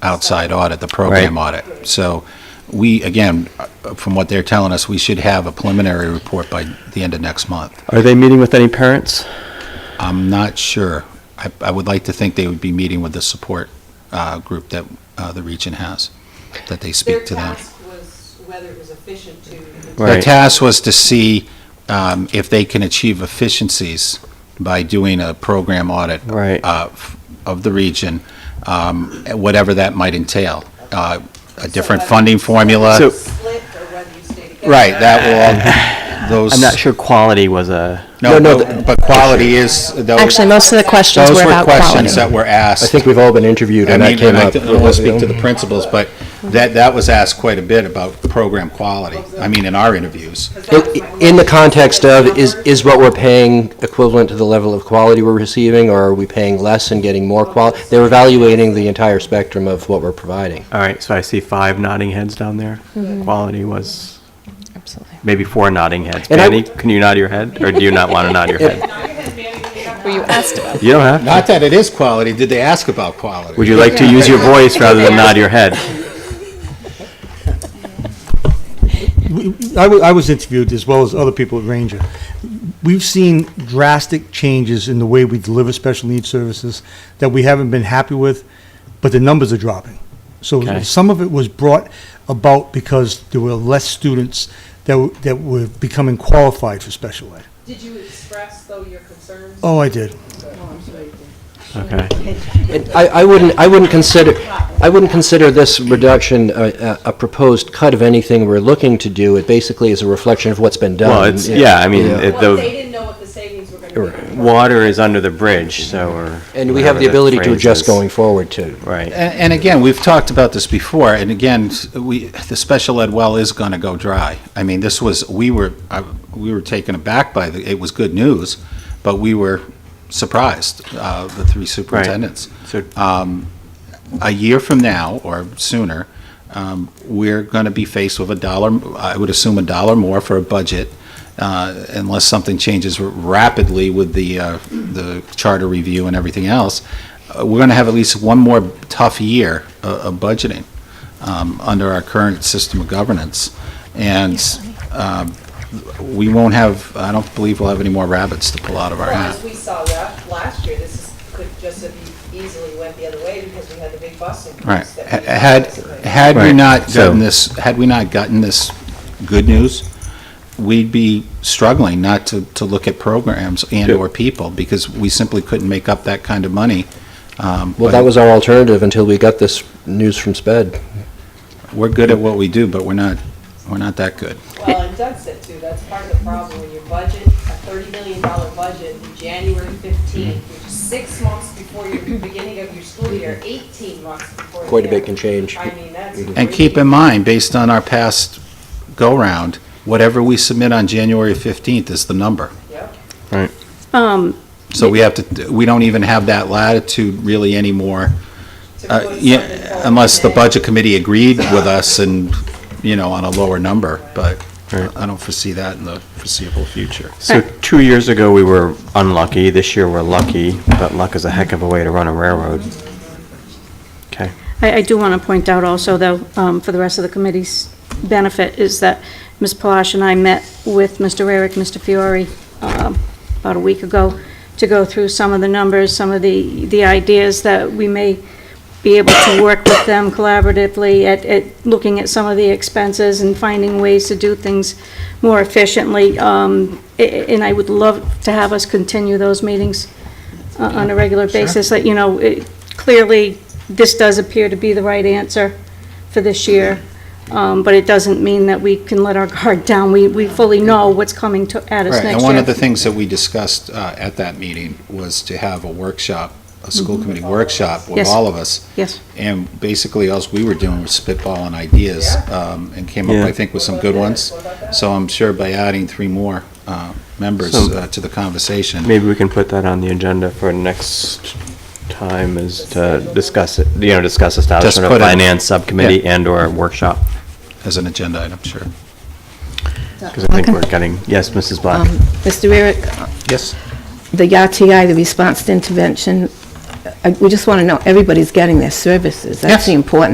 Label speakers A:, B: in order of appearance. A: outside audit, the program audit. So we, again, uh, from what they're telling us, we should have a preliminary report by the end of next month.
B: Are they meeting with any parents?
A: I'm not sure. I, I would like to think they would be meeting with the support uh, group that uh, the region has, that they
C: Their
A: speak to them.
C: task was whether it was efficient to.
B: Right.
A: The task was to see um, if they can achieve efficiencies by doing a program audit
B: Right.
A: uh, f- of the region, um, whatever that might entail. Uh, A different
C: So whether
A: funding
C: you
A: formula.
B: So-
C: Split or whether you stay together.
A: Right, that will, all those.
B: I'm not sure quality was a.
A: No, no, but quality is, those
D: Oh.
E: Actually, most of the questions
A: those
E: were
A: were
E: about
A: questions
E: quality.
A: that were asked.
D: I think we've all been interviewed,
A: I
D: and that
A: mean,
D: came
A: and I
D: up.
A: don't want to speak to the principals, but that, that was asked quite a bit about program quality. I mean, in our interviews.
D: In- In the context of, is, is what we're paying equivalent to the level of quality we're receiving, or are we paying less and getting more quality? They're evaluating the entire spectrum of what we're providing.
B: All right, so I see five nodding heads down there. Quality was
E: Mm-hmm. Absolutely.
B: maybe four nodding heads.
D: And I-
B: Manny, can you nod your head, or do you not want to nod your head?
E: Were you asked about?
B: You don't have. to.
A: Not that it is quality, did they ask about quality?
B: Would you like to use your voice rather than nod your head?
F: I wa- I was interviewed as well as other people at Ranger. We've seen drastic changes in the way we deliver special needs services that we haven't been happy with, but the numbers are dropping. So
B: Okay.
F: some of it was brought about because there were less students that, w- that were becoming qualified for special ed.
C: Did you express though your concerns?
F: Oh, I did.
B: Okay.
D: And I, I wouldn't, I wouldn't consider, I wouldn't consider this reduction a, a a proposed cut of anything we're looking to do. It basically is a reflection of what's been done.
B: Well, it's yeah. I mean, it,
C: Well, they
B: the
C: didn't know what the savings were gonna be.
B: water is under the bridge, so we're.
D: And we have the
B: whatever
D: ability to
B: phrase
D: adjust
B: is.
D: going forward, too.
B: Right.
A: And, and again, we've talked about this before, and again, s- we, the special ed well is gonna go dry. I mean, this was, we were, I- we were taken aback by, the it was good news, but we were surprised, uh, the three superintendents.
B: So
A: Um, A year from now, or sooner, um, we're gonna be faced with a dollar, I would assume a dollar more for a budget, uh, unless something changes rapidly with the, uh, the charter review and everything else, uh, we're going to have at least one more tough year uh, of budgeting um, under our current system of governance. And um, we won't have, I don't believe we'll have any more rabbits to pull out of our
C: Well,
A: hat.
C: as we saw la- last year, this is- could just have easily went the other way because we had the big bus increase.
A: Right.
C: that
A: Ha-
C: we
A: Had,
C: anticipated.
A: had we
B: Right.
A: not
B: So-
A: gotten this, had we not gotten this good news, we'd be struggling not to, to look at programs and/or people because we simply couldn't make up that kind of money. Um,
D: Well,
A: but
D: that was our alternative until we got this news from SPED.
A: We're good at what we do, but we're not, we're not that good.
C: Well, and Doug said too, that's part of the problem, when your budget, a thirty million dollar budget, in January fifteenth, which is six months before your beginning of your school year, eighteen months before. the
D: Quite a bit
C: end.
D: can change.
C: I mean, that's.
A: And keep in mind, based on our past go-round, whatever we submit on January 15th is the number.
C: Yep.
G: Um,
A: So we have to, we don't even have that latitude really anymore,
C: to
A: uh,
C: put something
A: yeah,
C: forward
A: unless the
C: today.
A: Budget Committee agreed with us and, you know, on a lower number, but I don't foresee that in the foreseeable future.
B: So two years ago, we were unlucky. This year, we're lucky, but luck is a heck of a way to run a railroad. Okay.
G: I, I do want to point out also, though, um, for the rest of the committee's benefit, is that Ms. Palash and I met with Mr. Rarick, Mr. Fiore, um, about a week ago, to go through some of the numbers, some of the, the ideas that we may be able to work with them collaboratively at, at looking at some of the expenses and finding ways to do things more efficiently. Um, a- a- and I would love to have us continue those meetings uh, on a regular basis, that, you know, it- clearly, this does appear to be the right answer for this year, um, but it doesn't mean that we can let our guard down. We, we fully know what's coming to, at us
A: Right,
G: next year.
A: and one of the things that we discussed uh, at that meeting was to have a workshop, a school committee workshop with
G: Mm-hmm. Yes.
A: all of us.
G: Yes.
A: And basically, all we were doing was spitballing ideas um, and came up,
B: Yeah.
A: I think, with some good ones. So I'm sure by adding three more uh, members
B: So-
A: uh, to the conversation.
B: Maybe we can put that on the agenda for next time is to discuss it, you know, discuss establishment of
A: put it-
B: finance subcommittee and/or workshop.
A: As an agenda item, sure.
B: Because I think we're getting, yes, Mrs. Black.
H: Mr. Um, Eric,
A: Yes.
H: the YTI, the Response to Intervention, uh, I- we just want to know, everybody's getting their services. That's
A: Yes.
H: the important